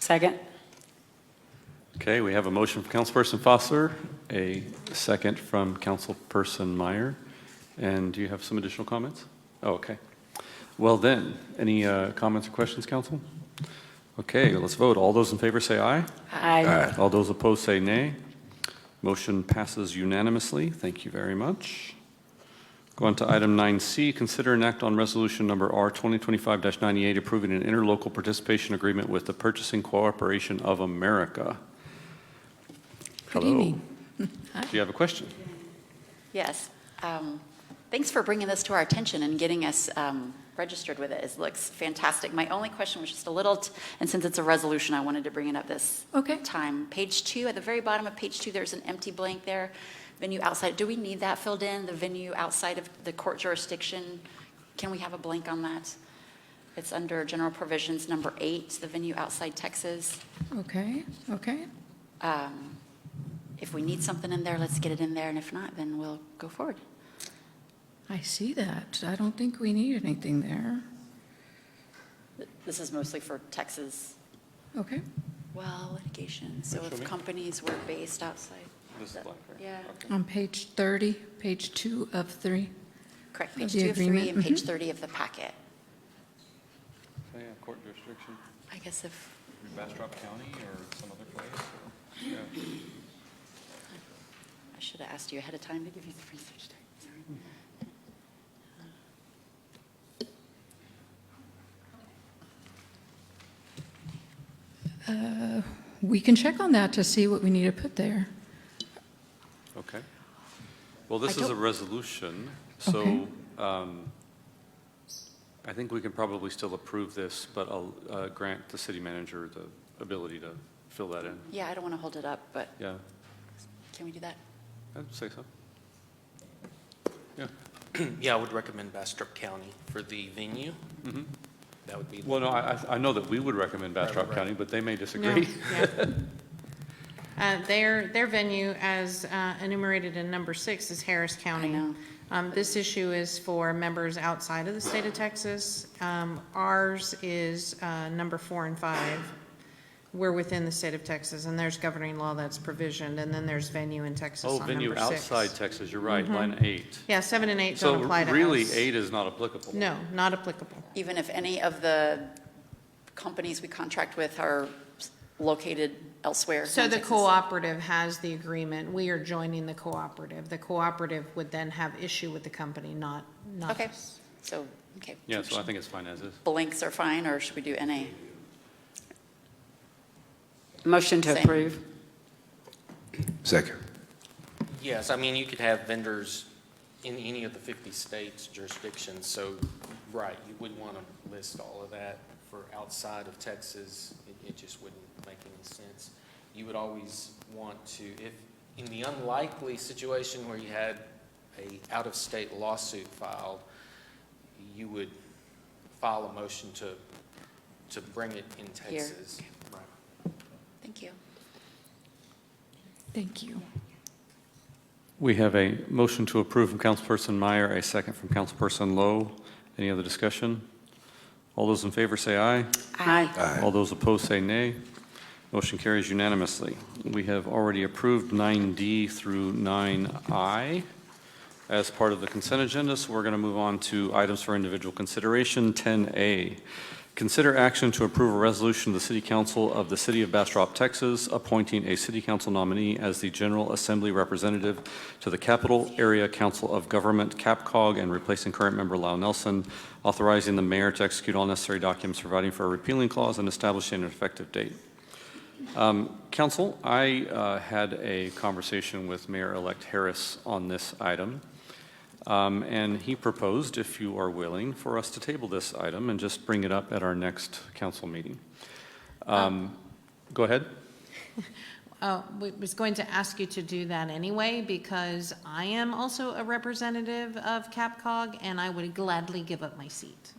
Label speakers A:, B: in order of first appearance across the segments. A: Second.
B: Okay, we have a motion from Councilperson Foster, a second from Councilperson Meyer. And do you have some additional comments? Oh, okay. Well then, any uh, comments or questions, council? Okay, let's vote. All those in favor say aye.
A: Aye.
B: All those opposed say nay. Motion passes unanimously. Thank you very much. Go on to item 9C, consider an act on resolution number R 2025-98 approving an interlocal participation agreement with the Purchasing Corporation of America.
C: Good
B: Hello.
C: evening.
B: Do you have a question?
D: Yes. Um, Thanks for bringing this to our attention and getting us um, registered with it. It looks fantastic. My only question was just a little, t- and since it's a resolution, I wanted to bring it up this
C: Okay.
D: time. Page two, at the very bottom of page two, there's an empty blank there, venue outside. Do we need that filled in, the venue outside of the court jurisdiction? Can we have a blank on that? It's under general provisions, number eight, the venue outside Texas.
C: Okay, okay.
D: Um, If we need something in there, let's get it in there, and if not, then we'll go forward.
C: I see that. I don't think we need anything there.
D: This is mostly for Texas
C: Okay,
D: well litigation, so
B: Show
D: if
B: me.
D: companies were based outside.
B: This is blank, right?
D: Yeah,
C: on page 30, page two of three.
D: correct,
C: Of
D: page
C: the
D: two of three
C: agreement,
D: and page
C: mhm.
D: 30 of the packet.
B: Yeah, court jurisdiction,
D: I guess if,
B: Bastrop County or some other place?
D: I should have asked you ahead of time to give you the research time, sorry.
C: Uh, We can check on that to see what we need to put there.
B: Okay. Well, this
C: I
B: is a
C: don't-
B: resolution,
C: Okay.
B: so um, I think we can probably still approve this, but I'll uh, grant the city manager the ability to fill that in.
D: Yeah, I don't want to hold it up, but
B: Yeah,
D: can we do that?
B: I'd say so.
E: Yeah, I would recommend Bastrop County for the venue. That would be,
B: Well, no, I, I- I know that we would recommend
E: Right,
B: Bastrop
E: right.
B: County, but they may
F: No,
B: disagree.
F: yeah. Uh, Their, their venue, as uh, enumerated in number six, is Harris County.
D: know.
F: Um, This issue is for members outside of the state of Texas. Um, Ours is uh, number four and five. We're within the state of Texas, and there's governing law that's provisioned, and then there's venue in Texas
B: Oh,
F: on
B: venue
F: number six. Mm-hmm.
B: outside Texas, you're right, line eight.
F: Yeah, seven and eight
B: So
F: don't apply to us.
B: really, eight is not applicable.
F: No, not applicable.
D: Even if any of the companies we contract with are located elsewhere?
F: So
D: in
F: the
D: Texas?
F: cooperative has the agreement, we are joining the cooperative. The cooperative would then have issue with the company, not, not
D: Okay,
F: us.
D: so, okay.
B: Yeah, so I think it's fine as is.
D: Blanks are fine, or should we do NA?
A: Motion to
D: Same.
A: approve.
G: Second.
E: yes, I mean, you could have vendors in any of the 50 states jurisdictions, so, right, you wouldn't want to list all of that for outside of Texas. It, it just wouldn't make any sense. You would always want to, if, in the unlikely situation where you had a out-of-state lawsuit filed, you would file a motion to, to bring it in
D: Here.
E: Texas. Right.
D: Thank you.
C: Thank you.
B: We have a motion to approve from Councilperson Meyer, a second from Councilperson Lowe. Any other discussion? All those in favor say aye.
A: Aye.
B: All those opposed say nay. Motion carries unanimously. We have already approved 9D through 9I as part of the consent agenda, so we're going to move on to items for individual consideration. 10A, consider action to approve a resolution of the City Council of the City of Bastrop, Texas, appointing a City Council nominee as the General Assembly Representative to the Capital Area Council of Government, CAPCOG, and replacing current member Lau Nelson, authorizing the mayor to execute all necessary documents providing for a repealing clause and establishing an effective date. Um, Council, I uh, had a conversation with Mayor-elect Harris on this item, Um, and he proposed, if you are willing, for us to table this item and just bring it up at our next council meeting. Um, Go ahead.
F: Uh, we- was going to ask you to do that anyway, because I am also a representative of CapCog, and I would gladly give up my seat.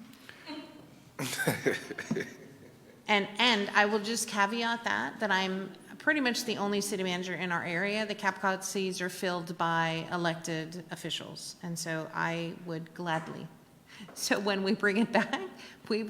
F: And, and I will just caveat that, that I'm pretty much the only city manager in our area. The CapCog seats are filled by elected officials, and so I would gladly. So when we bring it back, we